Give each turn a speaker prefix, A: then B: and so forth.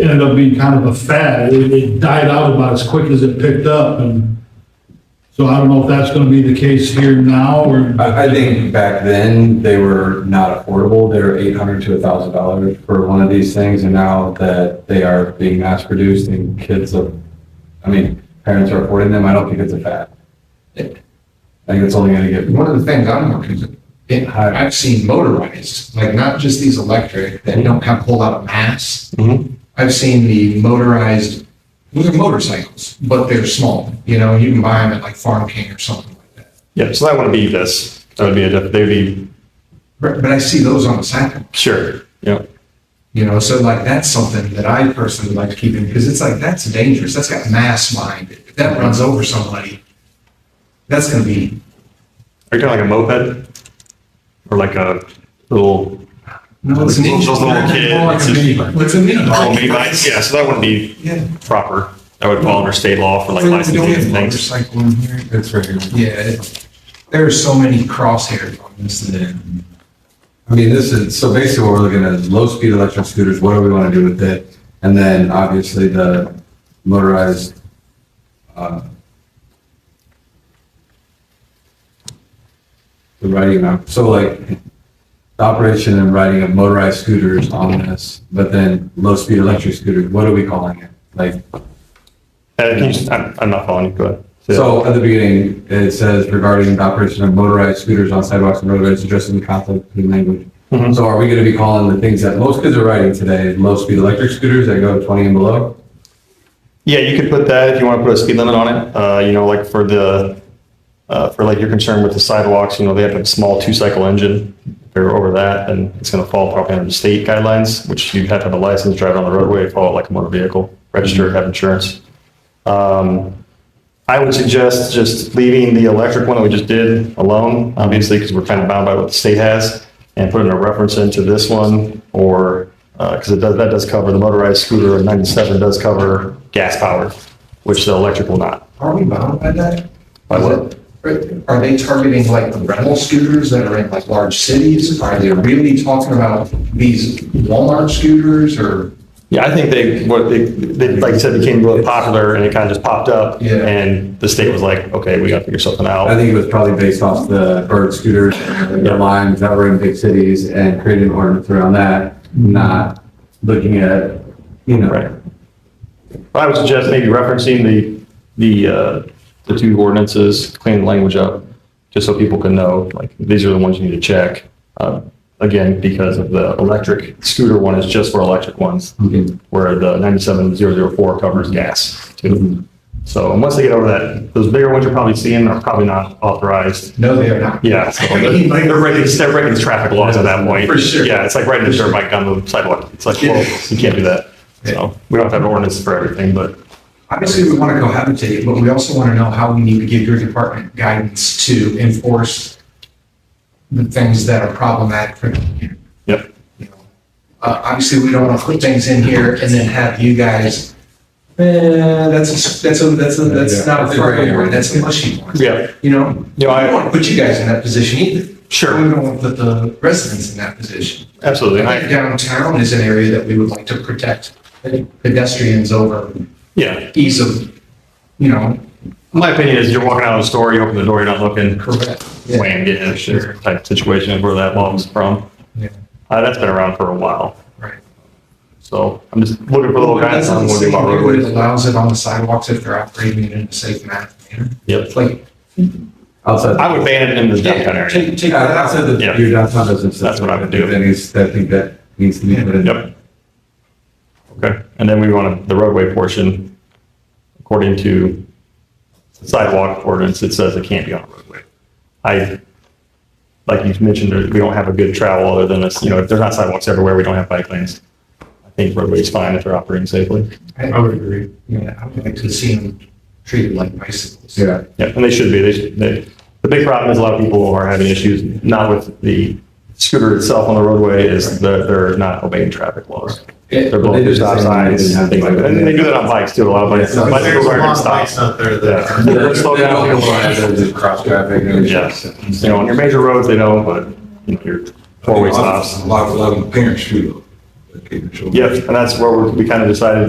A: ended up being kind of a fad. It, it died out about as quick as it picked up and so I don't know if that's gonna be the case here now or.
B: I, I think back then, they were not affordable. They were eight hundred to a thousand dollars for one of these things, and now that they are being mass produced and kids of, I mean, parents are affording them, I don't think it's a fad. I think it's only gonna get
C: One of the things I'm more concerned, and I- I've seen motorized, like not just these electric that don't have a whole lot of mass.
B: Mhm.
C: I've seen the motorized, well, they're motorcycles, but they're small, you know, you can buy them at like Farm King or something like that.
D: Yeah, so that wouldn't be this. That would be a, diff- they'd be,
C: But, but I see those on the sidewalk,
D: sure, yeah.
C: you know, so like that's something that I personally like to keep in, because it's like, that's dangerous, that's got mass mind. If that runs over somebody, that's gonna be,
D: Are you talking like a moped? Or like a little,
C: no, it's an
D: Those
C: engine.
D: little kids,
C: More like a
D: it's-
C: mini bike. It's a mini
D: oh,
C: bike.
D: maybe, yeah, so that wouldn't be
C: Yeah.
D: proper. That would fall under state law for like
C: Wait, we don't
D: licensing
C: have
D: and things.
C: motorcycle in here?
B: It's right here.
C: Yeah, it- there are so many crosshairs on this thing.
B: I mean, this is, so basically what we're looking at is low-speed electric scooters, what do we want to do with it? And then obviously the motorized, uh, the riding, of- so like the operation and riding of motorized scooters on this, but then low-speed electric scooters, what are we calling it? Like,
D: Uh, can you just- I'm, I'm not following you, go ahead.
B: so at the beginning, it says regarding the operation of motorized scooters on sidewalks and roadways, addressing the conflict between language.
D: Mhm.
B: So are we gonna be calling the things that most kids are riding today, low-speed electric scooters that go twenty and below?
D: Yeah, you could put that, if you want to put a speed limit on it, uh, you know, like for the, uh, for like your concern with the sidewalks, you know, they have a small two-cycle engine. If they're over that, then it's gonna fall probably under the state guidelines, which you'd have to have a license, drive on the roadway, follow it like a motor vehicle, register, have insurance. Um, I would suggest just leaving the electric one that we just did alone, obviously, because we're kind of bound by what the state has, and putting a reference into this one, or, because it does, that does cover, the motorized scooter in 97 does cover gas powered, which the electric will not.
C: Are we bound by that?
D: By what?
C: Are- Are they targeting like the rental scooters that are in like large cities? Are they really talking about these Walmart scooters or?
D: Yeah, I think they, what they, they, like you said, became really popular, and it kind of just popped up,
C: Yeah.
D: and the state was like, okay, we gotta figure something
B: I
D: out.
B: think it was probably based off the bird scooters, the lines that were in big cities and creating ordinance around that, not looking at, you
D: Mm-hmm. Right.
B: know,
D: I would suggest maybe referencing the, the, uh, the two ordinances, clean the language up, just so people can know, like, these are the ones you need to check. Uh, Again, because of the electric scooter one is just for electric ones,
B: Mhm.
D: where the 97004 covers gas too. So, and once they get over that, those bigger ones you're probably seeing are probably not authorized.
C: No, they are not.
D: Yeah, so they're they're breaking, they're breaking the traffic laws at that point.
C: For sure.
D: Yeah, it's like riding a dirt bike on the sidewalk. It's like, well, you can't do that. So, we don't have to have ordinance for everything, but
C: Obviously, we want to cohabitate, but we also want to know how we need to give your department guidance to enforce the things that are problematic for the community.
D: Yep.
C: you know, uh, obviously, we don't want to put things in here and then have you guys, eh, that's, a- that's, a- that's, a- that's
B: Yeah.
C: not a fair award, that's a mushy one,
D: Yeah,
C: you know?
D: you know,
C: I don't
D: I,
C: want to put you guys in that position either. We
D: sure,
C: don't want to put the residents in that position.
D: absolutely. And I,
C: Downtown is an area that we would like to protect pedestrians over
D: yeah,
C: ease of, you know,
D: my opinion is you're walking out of a store, you open the door, you're not looking,
C: correct.
D: wham, get in, sure, type situation of where that law was from.
C: Yeah.
D: Uh, that's been around for a while.
C: Right.
D: So I'm just looking for little
C: Well,
D: guys
C: that's not
D: on what
C: saying
D: we want
C: here that it
D: roadways.
C: allows it on the sidewalks if they're operating in a safe manner.
D: Yep,
C: It's like,
B: outside.
D: I would ban it in the downtown
C: yeah,
D: area.
C: take, take
B: Yeah,
C: that
B: that's
C: out.
B: a,
D: Yeah.
B: your downtown doesn't.
D: That's what I would do.
B: That is, I think that needs to be put in.
D: Yep. Okay, and then we want the roadway portion, according to sidewalk ordinance, it says it can't be on a roadway. I, like you mentioned, there- we don't have a good travel other than this, you know, if there's not sidewalks everywhere, we don't have bike lanes. I think roadway's fine if they're operating safely.
C: I would agree. Yeah, I would like to see them treated like bicycles.
B: Yeah.
D: Yeah, and they should be. They, should- they, the big problem is a lot of people are having issues, not with the scooter itself on the roadway, is that they're not obeying traffic laws.
C: Yeah.
D: They're
B: They
D: blowing through
B: do
D: stop
B: the same thing.
D: signs and things like that. And they do that on bikes too, a lot of bikes.
B: Yeah.
D: Bicycles aren't gonna stop.
E: out there
D: Yeah.
B: They
D: They're
B: don't
D: gonna slow down. people
B: realize
D: aren't-
B: that it's cross traffic. and it's-
D: Yeah. You know, on your major roads, they don't, but you know, your four-way stops.
F: A lot, a lot of parents shoot up.
B: occasional.
D: Yeah, and that's where we- we kind of decided